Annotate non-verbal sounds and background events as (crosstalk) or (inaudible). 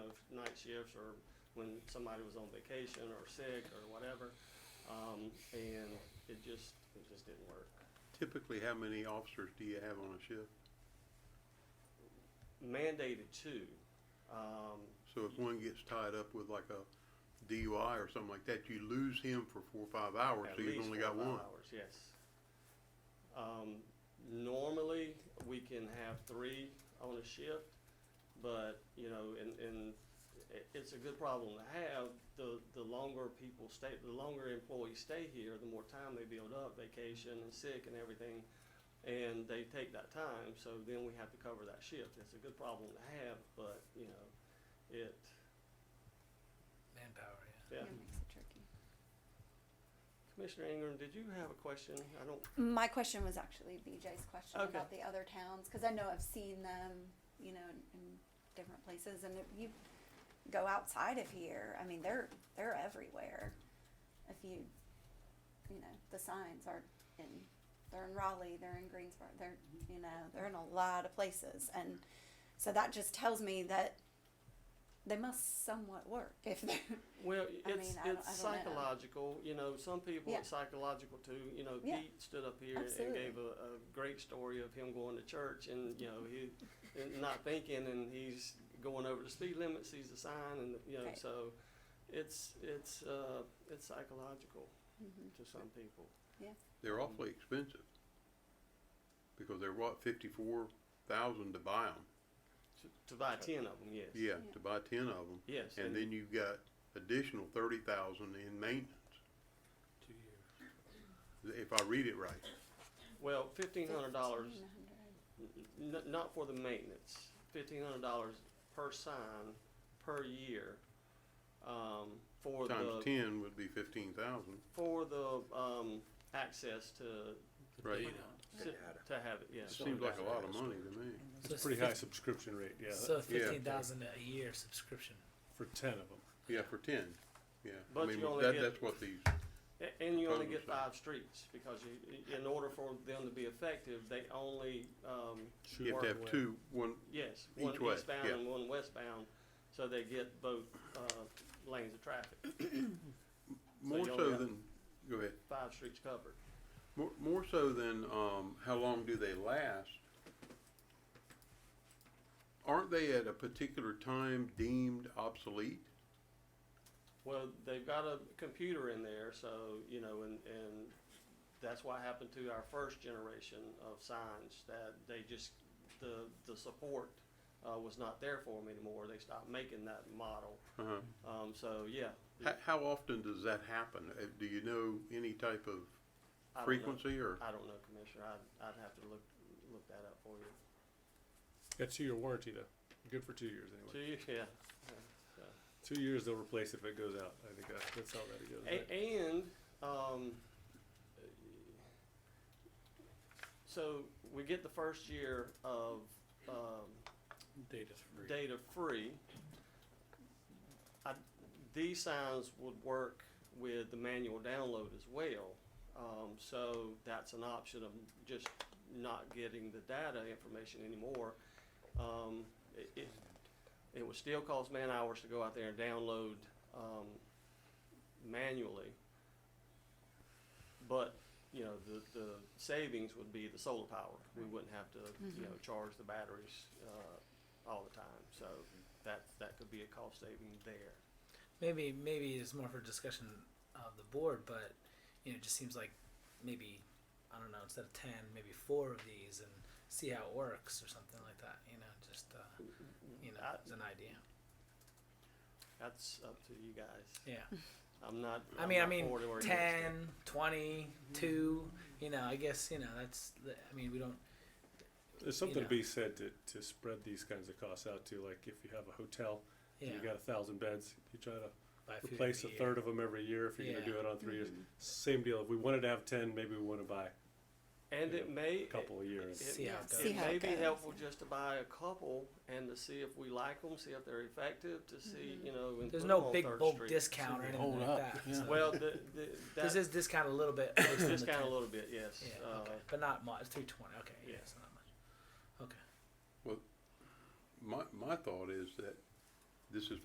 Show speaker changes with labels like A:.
A: night shifts or when somebody was on vacation or sick or whatever. Um, and it just, it just didn't work.
B: Typically, how many officers do you have on a shift?
A: Mandated two, um,
B: So if one gets tied up with like a DUI or something like that, you lose him for four or five hours,
A: At
B: so you've
A: least
B: only
A: four
B: got
A: or five
B: one.
A: Hours, yes. Um, normally, we can have three on a shift, but, you know, and, and i- it's a good problem to have. The, the longer people stay, the longer employees stay here, the more time they build up, vacation and sick and everything. And they take that time, so then we have to cover that shift. It's a good problem to have, but, you know, it,
C: Manpower, yeah.
A: yeah. Commissioner Ingram, did you have a question? I don't
D: My question was actually BJ's question
A: Okay.
D: about the other towns, because I know I've seen them, you know, in, in different places, and if you go outside of here, I mean, they're, they're everywhere. If you, you know, the signs are in, they're in Raleigh, they're in Greensboro, they're, you know, they're in a lot of places, and so that just tells me that they must somewhat work if they're,
A: Well,
D: I
A: it's
D: mean, I don't-
A: it's
D: I don't know.
A: psychological. You know, some people
D: Yeah.
A: it's psychological too. You know,
D: Yeah.
A: Pete stood up here and
D: Absolutely.
A: gave a, a great story of him going to church and you know he and not thinking and he's going over the speed limit, sees the sign, and you know
D: Right.
A: so it's it's uh, it's psychological
D: Mhm.
A: to some people.
B: They're awfully expensive. Because they're what, fifty-four thousand to buy them?
A: To, to buy ten of them, yes.
B: Yeah,
D: Yeah.
B: to buy ten of them.
A: Yes.
B: And then you've got additional thirty thousand in maintenance,
C: Two years.
B: if I read it right.
A: well, fifteen hundred dollars
D: $1,500.
A: N- n- not for the maintenance, fifteen hundred dollars per sign per year, um, for the,
B: Times ten would be fifteen thousand.
A: for the, um, access to,
B: Right.
A: to to have it, yes.
B: Seems like a lot of money to me.
C: So
E: It's a pretty high subscription rate, yeah,
C: So
B: yeah.
C: fifteen thousand a year subscription.
E: for ten of them.
B: Yeah, for ten, yeah. I
A: But
B: mean,
A: you only
B: that,
A: get-
B: that's what these,
A: A- And you only get
B: Totally.
A: five streets, because you, in order for them to be effective, they only, um,
B: you have to have two, one,
A: yes,
B: Each
A: one
B: way,
A: eastbound
B: yeah.
A: and one westbound, so they get both, uh, lanes of traffic,
B: more
A: you
B: so
A: only have-
B: than, go ahead.
A: five streets covered.
B: More, more so than um, how long do they last? Aren't they at a particular time deemed obsolete?
A: Well, they've got a computer in there, so, you know, and, and that's what happened to our first generation of signs, that they just, the, the support, uh, was not there for them anymore, they stopped making that model,
B: Uh-huh.
A: um, so, yeah.
B: How, how often does that happen? Uh, Do you know any type of
A: I don't know.
B: frequency or?
A: I don't know, Commissioner, I'd, I'd have to look, look that up for you.
E: Got two-year warranty though, good for two years
A: To you,
E: anyway.
A: yeah.
E: Two years they'll replace if it goes out, I think that, that's how that goes. right?
A: A- and, um, so we get the first year of, um,
C: Data's free.
A: data free. I, these signs would work with the manual download as well. Um, so that's an option of just not getting the data information anymore. Um, it, it, it would still cost man hours to go out there and download, um, manually. But, you know, the, the savings would be the solar power. We wouldn't have to,
C: Mm-hmm.
A: you know, charge the batteries, uh, all the time. So that that could be a cost saving there.
C: Maybe maybe it's more for discussion of the board, but you know, it just seems like maybe I don't know, instead of ten, maybe four of these and see how it works or something like that, you know, just uh, you know,
A: I-
C: as an idea.
A: That's up to you guys.
C: Yeah.
A: I'm not.
C: I
A: I'm
C: mean, I
A: not
C: mean,
A: for it or against it.
C: 10, 20,
E: Mm-hmm.
C: 2, you know, I guess, you know, that's, the- I mean, we don't,
E: There's something
C: know.
E: to be said to, to spread these kinds of costs out to, like if you have a hotel,
C: yeah,
E: and you got a thousand beds, you try to
C: buy food
E: replace a
C: every year.
E: third of them every year if you're gonna do it on three years. Same deal, if we wanted to have ten, maybe we wanna buy
A: And it may
E: a couple a year.
A: It,
C: See how it
A: it
C: goes. See
D: how
A: may
D: it
A: be
D: goes,
A: helpful just to buy a couple and to see if we like them, see if they're effective, to see
D: Mm-hmm.
A: you know. And
C: There's
A: put
C: no
A: 'em on
C: big
A: Third
C: bulk
A: Street.
C: discount or anything like that. so-
A: Well, the,
C: (laughs)
A: the,
C: This
A: that
C: is discount a little
A: (coughs)
C: bit.
A: it's
C: (coughs) based on the
A: discount a
C: ten.
A: little bit, yes.
C: Yeah,
A: uh,
C: okay. But not much. 320. Okay. Yeah,
A: yeah.
C: it's not much.
B: My, my thought is that this is